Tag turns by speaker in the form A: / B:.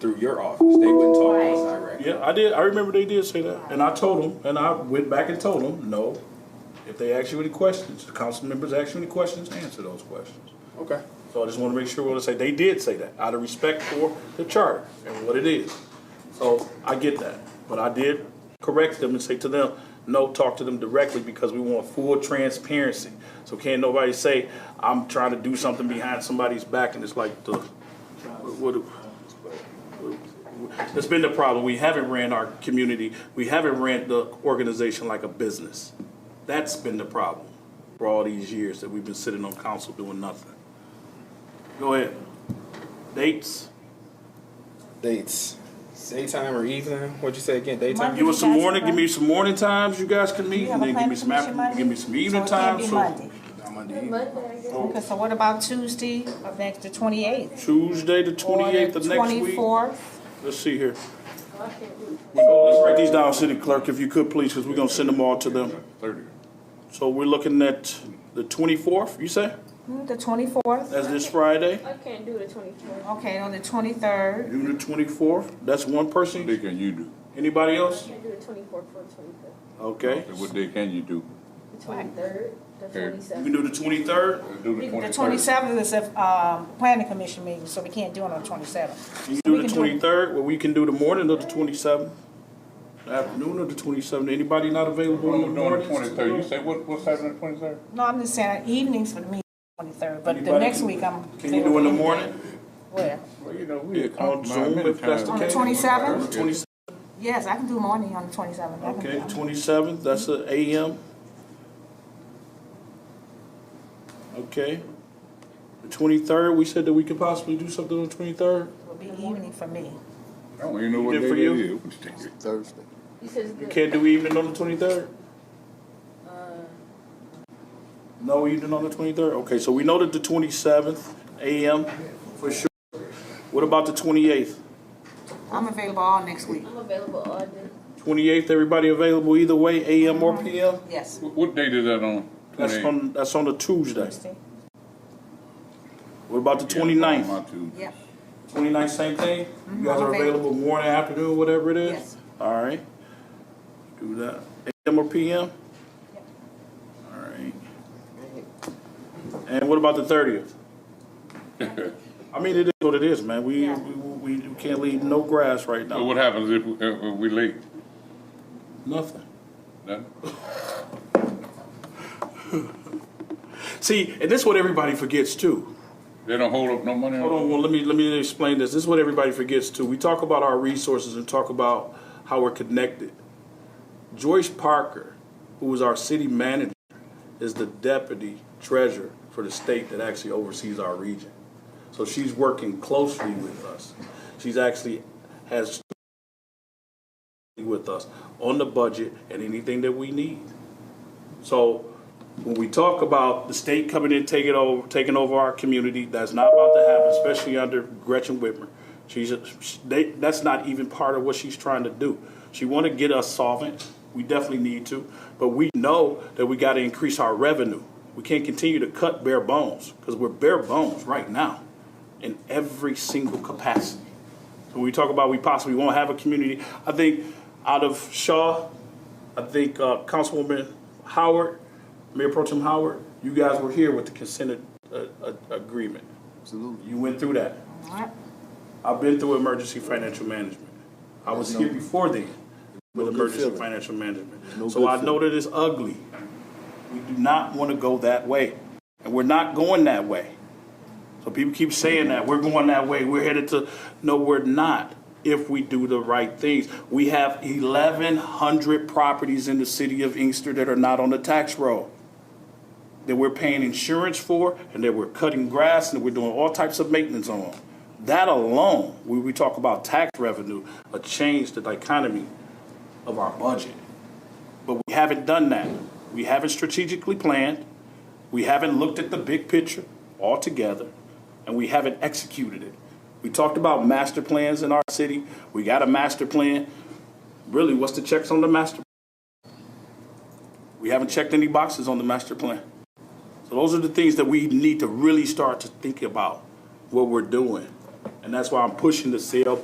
A: through your office. They wouldn't talk to us directly.
B: Yeah, I did. I remember they did say that, and I told them, and I went back and told them, no. If they ask you any questions, the council members ask you any questions, answer those questions.
A: Okay.
B: So I just want to make sure what I say. They did say that out of respect for the charter and what it is. So I get that, but I did correct them and say to them, no, talk to them directly because we want full transparency. So can't nobody say I'm trying to do something behind somebody's back and it's like the what. what- It's been the problem. We haven't ran our community. We haven't ran the organization like a business. That's been the problem for all these years that we've been sitting on council doing nothing. Go ahead. Dates.
A: Dates. Daytime or evening? What'd you say again? Daytime?
B: Give us some morning. Give me some morning times you guys can meet,
C: You
B: and
C: have a
B: then give me
C: planning
B: some
C: commission
B: after,
C: Monday?
B: give me some evening
C: So it
B: time.
C: can't be
B: So
C: Monday.
D: Monday.
C: Okay, so what about Tuesday of next, the twenty-eighth?
B: Tuesday the twenty eighth of next week.
C: Twenty-fourth,
B: Let's see here. So Let's write these down, city clerk, if you could, please, because we're gonna send them all to them. So we're looking at the twenty fourth. You say
C: Hmm, the twenty-fourth,
B: that's this Friday,
D: I can't do the twenty-fourth.
C: okay, on the twenty-third,
B: June the twenty fourth. That's one person.
E: What day can you do?
B: Anybody
D: I
B: else?
D: can't do the twenty-fourth for the twenty-fifth.
B: Okay.
E: What day can you do?
D: The twenty-third, the
B: We
E: Okay.
D: twenty-seventh.
B: can do the twenty third.
C: the twenty-seventh is a, um, planning commission meeting, so we can't do it on the twenty-seventh.
B: You
C: We
B: do the
C: can do-
B: twenty-third, well, we can do the morning of the twenty-seventh, afternoon of the twenty-seventh, anybody not available
E: What
B: on
E: we
B: the
E: doing the
B: mornings?
E: twenty-third, you say what, what's happening the twenty-third?
C: No, I'm just saying evenings for the meeting, twenty-third, but the
B: Anybody
C: next
B: can-
C: week I'm.
B: Can you do in the morning,
C: Where?
E: Well, you know, we.
B: on Zoom, if that's the
C: On the
B: case?
C: 27th?
B: Twenty-seventh,
C: Yes, I can do morning on the twenty-seventh.
B: okay, twenty-seventh, that's a AM. Okay, the twenty-third, we said that we could possibly do something on the twenty-third,
C: It'll be evening for me.
E: I don't even know what
B: Good
E: day
B: for
E: that
B: you.
E: is.
F: Thursday.
D: You said it's
B: you
D: good.
B: can't do evening on the twenty-third?
D: Uh,
B: No evening on the twenty-third, okay, so we know that the twenty-seventh, AM, for sure. What about the twenty-eighth?
C: I'm available all next week,
D: I'm available all day.
B: 28th, everybody available either way, AM or PM?
C: yes.
E: What, what date is that on?
B: That's
E: 28th?
B: on, that's on a Tuesday.
C: Tuesday.
B: What about the
E: Yeah, it's on
B: 29th?
E: my Tuesday.
C: Yep,
B: 29th, same thing? You guys
C: I'm
B: are available
C: available.
B: morning, afternoon, whatever it is?
C: Mm-hmm. Yes.
B: All right. Do that. AM or PM? All right. And what about the 30th? I mean, it is what it is, man. We,
C: Yeah.
B: we, we we can't leave no grass right
E: So
B: now.
E: what happens if, we- if we late?
B: Nothing.
E: Nothing?
B: See, and this is what everybody forgets too.
E: They don't hold up no money? on
B: Hold on, well, let me, let me explain this. This is what everybody forgets too. We talk about our resources and talk about how we're connected. Joyce Parker, who was our city manager, is the deputy treasurer for the state that actually oversees our region. So she's working closely with us. She's actually has with us on the budget and anything that we need. So when we talk about the state coming in, taking over, taking over our community, that's not about to happen, especially under Gretchen Whitmer. She's, a- she- they, that's not even part of what she's trying to do. She want to get us solvent. We definitely need to, but we know that we got to increase our revenue. We can't continue to cut bare bones because we're bare bones right now in every single capacity. So when we talk about we possibly won't have a community, I think out of Shaw, I think uh, Councilwoman Howard, Mayor Pro Tem Howard, you guys were here with the consent uh, uh, agreement. Absolutely. You went through that.
C: all right.
B: I've been through emergency financial management. I was here before then with
F: good
B: emergency
F: feeling.
B: financial management.
F: No
B: So
F: good
B: I know that it's ugly. We do not want to go that way. And we're not going that way. So people keep saying that, we're going that way, we're headed to, no, we're not, if we do the right things. We have eleven hundred properties in the city of Inkster that are not on the tax roll that we're paying insurance for and that we're cutting grass and we're doing all types of maintenance on. That alone, when we talk about tax revenue, a change the dichotomy of our budget. But we haven't done that. We haven't strategically planned. We haven't looked at the big picture altogether, and we haven't executed it. We talked about master plans in our city. We got a master plan. Really, what's the checks on the master? We haven't checked any boxes on the master plan. So those are the things that we need to really start to think about what we're doing. And that's why I'm pushing the CLP